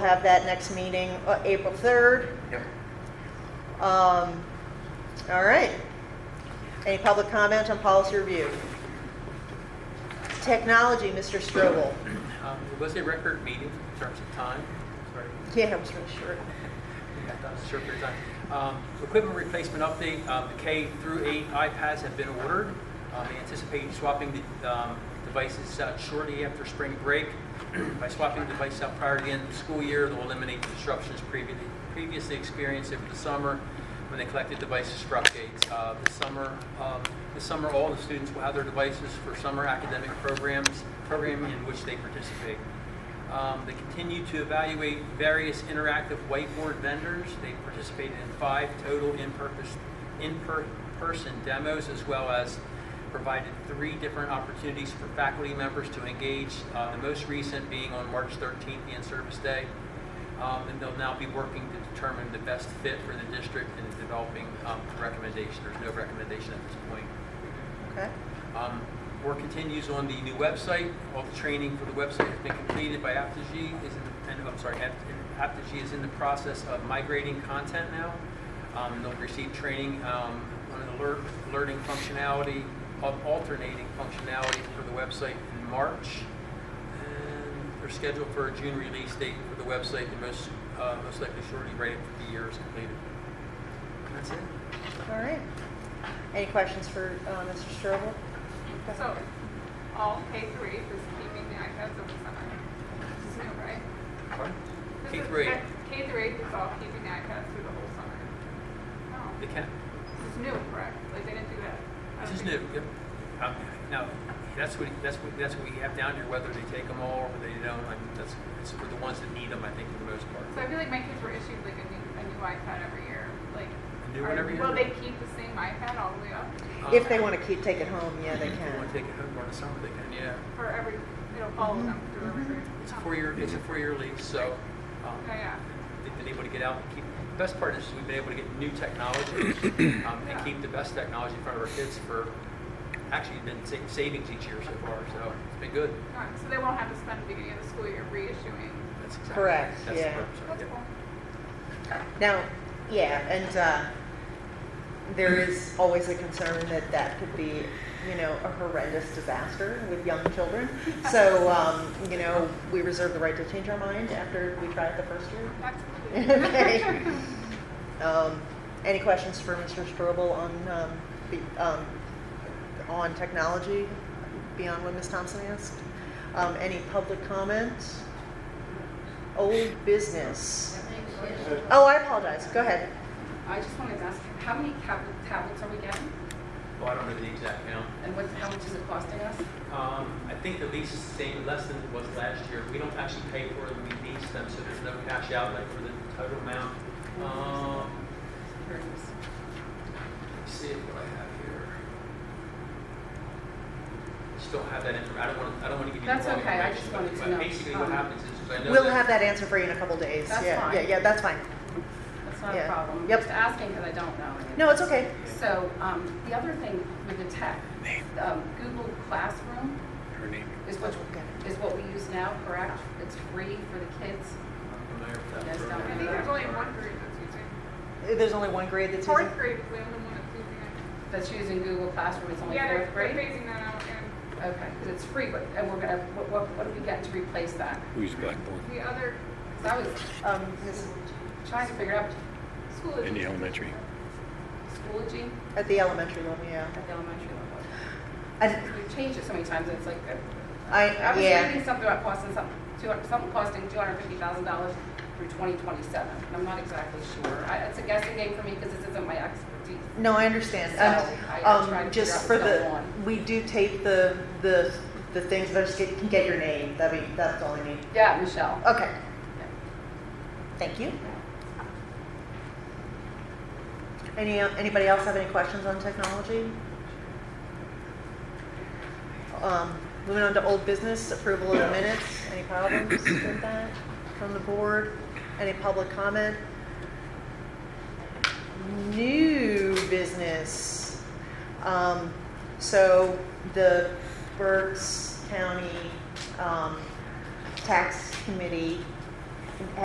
Have that next meeting, uh, April 3rd. Yep. Um, All right. Any public comment on policy review? Technology, Mr. Strobel. Um, It was a record meeting in terms of time. Sorry, Yeah, I'm sure- sure. we got done in a short period of time. Um, Equipment replacement update, um, the K through eight iPads have been ordered. Um, They anticipate swapping the um, devices out shortly after spring break. By swapping the device out prior to the end of the school year, they'll eliminate the disruptions previously previously experienced over the summer when they collected devices for updates. Uh, This summer, um, this summer, all the students will have their devices for summer academic programs, program in which they participate. Um, They continue to evaluate various interactive whiteboard vendors. They participated in five total in-purpose, in-person demos, as well as provided three different opportunities for faculty members to engage, uh, the most recent being on March 13th, the in-service day. Um, And they'll now be working to determine the best fit for the district and developing um, recommendations. There's no recommendation at this point. Okay. Um, Work continues on the new website. All the training for the website has been completed by Aptogee. Is in the, and, I'm sorry, Apt- Aptogee is in the process of migrating content now. Um, They'll receive training um, on an alert, alerting functionality, al- alternating functionality for the website in March. And They're scheduled for a June release date for the website, and most, uh, most likely shortly right after the year is completed. And That's it. All right. Any questions for uh, Mr. Strobel? So, all K through eight is keeping the iPads over summer. This is new, right? This K is- through eight. K through eight is all keeping the iPads through the whole summer. They No, can, this is new, correct? Like, they didn't do that. I This don't is new, think- yep. Um, Now, that's what, that's what, that's what we have down here, whether they take them all or they don't, like, that's, it's for the ones that need them, I think, for the most So part. I feel like my kids were issued like a new, a new iPad every year, like. A new are- one every year? Will they keep the same iPad all the way up? If they want to keep, take it home, yeah, they If they want to can. take it home during the summer, they can, yeah. For every, it'll follow them through every grade? Mm-hmm. It's a Oh. four-year, it's a four-year lease, so, um, Yeah, Oh, yeah. they've been able to get out and keep, the best part is we've been able to get new technology, um, and Yeah. keep the best technology in front of our kids for, actually, been sa- savings each year so far, so it's been good. Alright, So they won't have to spend the beginning of the school year reissuing. That's exactly- Correct, that's the yeah. purpose of it, That's yeah. cool. Now, yeah, and uh, there is always a concern that that could be, you know, a horrendous disaster with young children. So, um, you know, we reserve the right to change our mind after we try it the first year. Absolutely. Okay. Um, Any questions for Mr. Strobel on, um, be- um, on technology beyond what Ms. Thompson asked? Um, Any public comments? Old business? Oh, I apologize. Go ahead. I just wanted to ask, how many tab- tablets are we getting? Well, I don't know the exact count. And what, how much is it costing us? Um, I think the lease is the same, less than it was last year. We don't actually pay for them, we lease them, so there's no cash outlay for the total amount. Um, let's see what I have here. Just don't have that information. I don't want, I don't want to give you the wrong That's information. okay. I just but- wanted to but know. Basically, what Um, happens is, is I know We'll that- have that answer for you in a couple days. That's Yeah, fine. Yeah, yeah, that's fine. That's not Yeah. a problem. Yep. Just asking because I don't know. No, it's okay. So, um, the other thing with the tech, um, Google Classroom Her name. is what, is what we use now, correct? It's free for the kids. I'm familiar with that Yes, don't I program. think there's only one grade that's using. There's only one grade that's using. Fourth grade is the only one that's using That's using Google Classroom. It's it. only Yeah, they're, fourth they're grade. phasing that out and Okay, 'cause it's free, but, and we're gonna, what, what, what do we get to replace that? Who's Blackboard? the other Because I was, um, just trying to figure out school is. In the elementary. Schoology At the elementary level, yeah. at the elementary level. I, We've changed it so many times, it's like, uh, I I, was yeah. reading something about costing some, two hundred- something costing two hundred fifty thousand dollars through twenty twenty-seven, and I'm not exactly sure. I, it's a guessing game for me because this isn't my expertise. No, I understand. So, I- I Um, tried um, to just for figure out what's the, going on. we do tape the, the, the things, but I just get, can get your name. That'd be, that's all I need. Yeah, Michelle. Okay. Thank you. Any, anybody else have any questions on technology? Um, Moving on to old business, approval of the minutes. Any problems with that from the board? Any public comment? New business. Um, So the Berks County um, Tax Committee